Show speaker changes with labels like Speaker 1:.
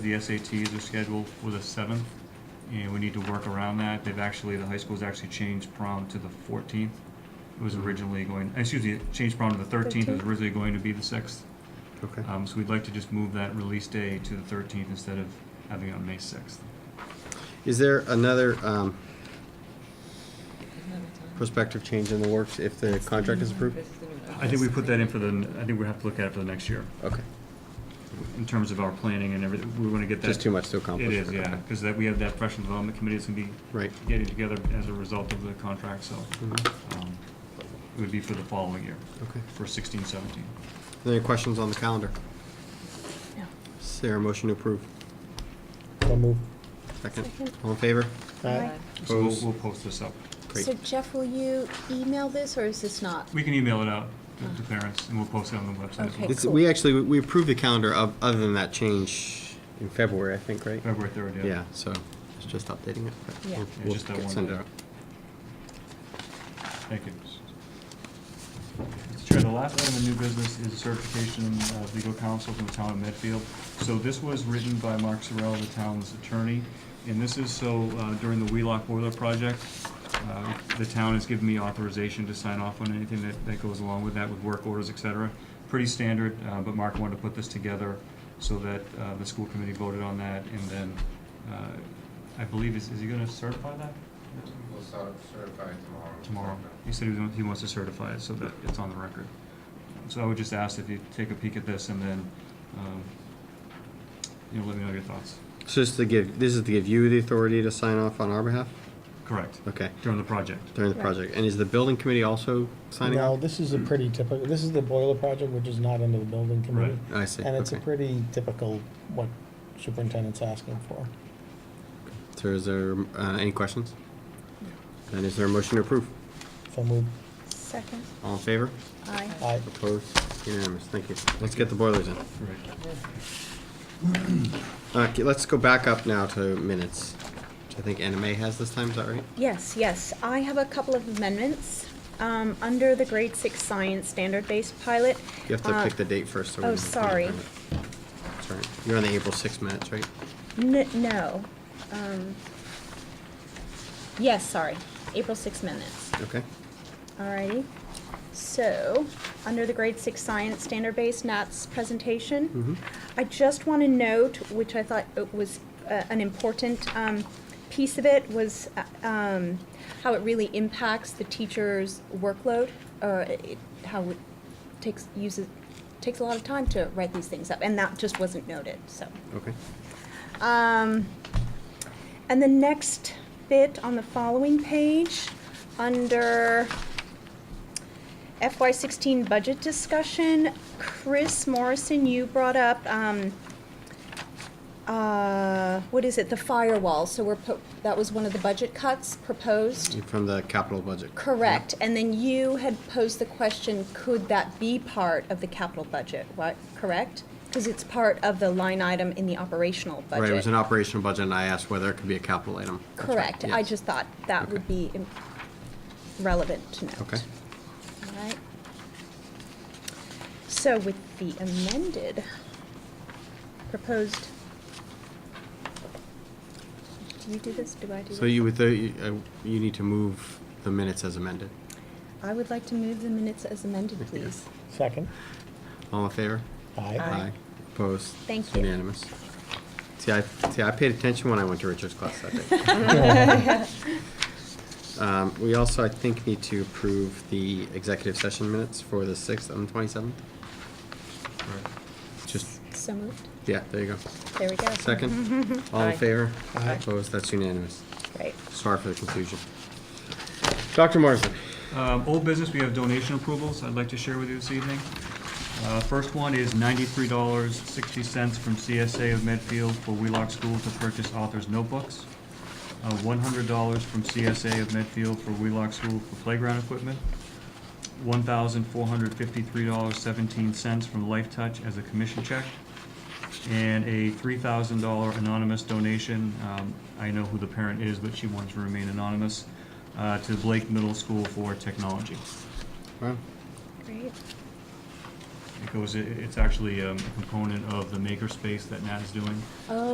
Speaker 1: The SATs are scheduled for the seventh, and we need to work around that. They've actually, the high school's actually changed prom to the fourteenth. It was originally going, excuse me, it changed prom to the thirteenth, it was
Speaker 2: 13th.
Speaker 1: originally going to be the sixth.
Speaker 3: Okay.
Speaker 1: Um, so we'd like to just move that release day to the thirteenth instead of having it on May sixth.
Speaker 3: Is there another um, prospective change in the works if the contract is approved?
Speaker 1: I think we put that in for the, I think we have to look at it for the next year,
Speaker 3: Okay,
Speaker 1: in terms of our planning and everything, we wanna get that.
Speaker 3: just too much to
Speaker 1: It
Speaker 3: accomplish.
Speaker 1: is, yeah,
Speaker 3: Okay.
Speaker 1: cause that, we have that professional development committee that's gonna be
Speaker 3: Right.
Speaker 1: getting together as a result of the contract, so,
Speaker 3: Mhm.
Speaker 1: um, it would be for the following year.
Speaker 3: Okay.
Speaker 1: for sixteen seventeen.
Speaker 3: Any questions on the calendar?
Speaker 2: No.
Speaker 3: Is there a motion to approve?
Speaker 4: So move.
Speaker 3: Second?
Speaker 2: Second.
Speaker 3: All in favor?
Speaker 4: Aye.
Speaker 1: So we'll,
Speaker 3: Opposed?
Speaker 1: we'll post this up.
Speaker 3: Great.
Speaker 2: So Jeff, will you email this or is this not?
Speaker 1: We can email it out to- to parents and we'll post it on the website as
Speaker 2: Okay.
Speaker 1: well.
Speaker 3: It's- We actually, we approved the calendar of, other than that change in February, I think, right?
Speaker 1: February third, yeah.
Speaker 3: Yeah, so it's just updating it. but
Speaker 2: Yeah.
Speaker 3: we'll-
Speaker 1: Yeah,
Speaker 3: we'll
Speaker 1: just that
Speaker 3: get-
Speaker 1: one
Speaker 3: send it
Speaker 1: day.
Speaker 3: out.
Speaker 1: Thank you. Mr. Chair, the last item of new business is certification of legal counsel from the town of Medfield. So this was written by Mark Sorrell, the town's attorney, and this is so uh, during the Wheelock Boiler Project, uh, the town has given me authorization to sign off on anything that, that goes along with that, with work orders, et cetera. Pretty standard, uh, but Mark wanted to put this together so that uh, the school committee voted on that, and then, uh, I believe, is, is he gonna certify that?
Speaker 5: We'll start certifying tomorrow.
Speaker 1: tomorrow. He said he was, he wants to certify it so that it's on the record. So I would just ask if you take a peek at this and then, um, you know, let me know your thoughts.
Speaker 3: So just to give, this is to give you the authority to sign off on our behalf?
Speaker 1: Correct.
Speaker 3: Okay,
Speaker 1: During the project.
Speaker 3: during the
Speaker 2: Right.
Speaker 3: project. And is the building committee also signing
Speaker 4: No,
Speaker 3: off?
Speaker 4: this is a pretty typical, this is the boiler project, which is not under the building committee.
Speaker 3: I see,
Speaker 4: And it's a
Speaker 3: okay.
Speaker 4: pretty typical what superintendent's asking for.
Speaker 3: So is there, uh, any questions? And is there a motion to approve?
Speaker 4: So move.
Speaker 2: Second.
Speaker 3: All in favor?
Speaker 2: Aye.
Speaker 4: Aye.
Speaker 3: Opposed? Unanimous, thank you. Let's get the boilers in.
Speaker 1: Right.
Speaker 3: Okay, let's go back up now to minutes, which I think NMA has this time, is that right?
Speaker 2: Yes, yes. I have a couple of amendments um, under the grade six science standard-based pilot.
Speaker 3: You have to
Speaker 2: uh,
Speaker 3: pick the date first. so we
Speaker 2: oh,
Speaker 3: know when to
Speaker 2: sorry.
Speaker 3: time it. Sorry, you're on the April sixth minutes, right?
Speaker 2: N- No. Um, Yes, sorry. April six minutes.
Speaker 3: Okay,
Speaker 2: Alrighty. So, under the grade six science standard-based NATS presentation,
Speaker 3: Mhm.
Speaker 2: I just want to note, which I thought it was uh, an important um, piece of it, was uh, um, how it really impacts the teacher's workload, or it, how it takes uses takes a lot of time to write these things up, and that just wasn't noted. So.
Speaker 3: okay.
Speaker 2: Um, and the next bit on the following page, under FY sixteen budget discussion, Chris Morrison, you brought up, um, uh, what is it, the firewall, so we're, po- that was one of the budget cuts proposed?
Speaker 3: You're From the capital budget.
Speaker 2: Correct, and then you had posed the question, could that be part of the capital budget, what, correct? Because it's part of the line item in the operational budget.
Speaker 3: Right, it was an operational budget, and I asked whether it could be a capital item. That's right,
Speaker 2: Correct, I
Speaker 3: yes.
Speaker 2: just thought that would
Speaker 3: Okay.
Speaker 2: be im- relevant to note.
Speaker 3: Okay.
Speaker 2: All right. So with the amended proposed, do you do this, do I do this?
Speaker 3: So you would, uh, you uh, you need to move the minutes as amended.
Speaker 2: I would like to move the minutes as amended,
Speaker 3: Yeah.
Speaker 2: please.
Speaker 4: Second.
Speaker 3: All in favor?
Speaker 4: Aye.
Speaker 3: Aye. Opposed?
Speaker 2: Thank
Speaker 3: It's
Speaker 2: you.
Speaker 3: Unanimous. See, I, see, I paid attention when I went to Richard's class that day. Um, we also, I think, need to approve the executive session minutes for the sixth and twenty-seventh.
Speaker 1: Right.
Speaker 3: Just,
Speaker 2: So moved,
Speaker 3: yeah, there you go.
Speaker 2: there we go.
Speaker 3: Second? All in favor?
Speaker 4: Aye.
Speaker 3: Opposed? That's unanimous.
Speaker 2: Great.
Speaker 3: Sorry for the confusion. Dr. Morrison?
Speaker 1: Um, Old business, we have donation approvals I'd like to share with you this evening. Uh, First one is ninety-three dollars, sixty cents from CSA of Medfield for Wheelock School to purchase author's notebooks. Uh, One hundred dollars from CSA of Medfield for Wheelock School for playground equipment. One thousand four hundred fifty-three dollars, seventeen cents from Life Touch as a commission check. And a three thousand dollar anonymous donation, um, I know who the parent is, but she wants to remain anonymous, uh, to Blake Middle School for technology.
Speaker 3: Wow.
Speaker 2: Great,
Speaker 1: It goes, it- it's actually um, a component of the makerspace that Nat is doing.
Speaker 2: oh,